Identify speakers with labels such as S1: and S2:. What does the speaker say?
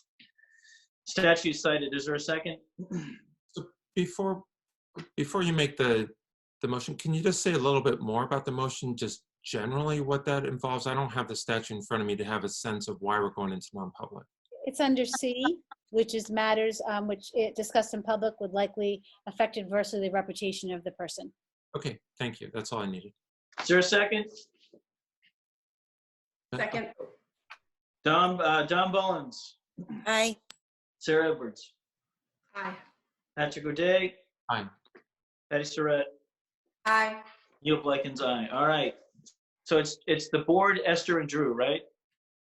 S1: Statute cited, is there a second?
S2: Before, before you make the, the motion, can you just say a little bit more about the motion, just generally what that involves? I don't have the statute in front of me to have a sense of why we're going into non-public.
S3: It's under C, which is matters um, which it discussed in public would likely affect adversely the reputation of the person.
S2: Okay, thank you. That's all I needed.
S1: Is there a second?
S4: Second,
S1: Don, uh, Don Mullins,
S5: Aye.
S1: Sarah Edwards,
S4: aye.
S1: Patrick O'Day.
S2: Aye.
S1: Patty Surratt,
S4: Aye.
S1: Neil Blackens, aye. All right. So it's, it's the board, Esther and Drew, right?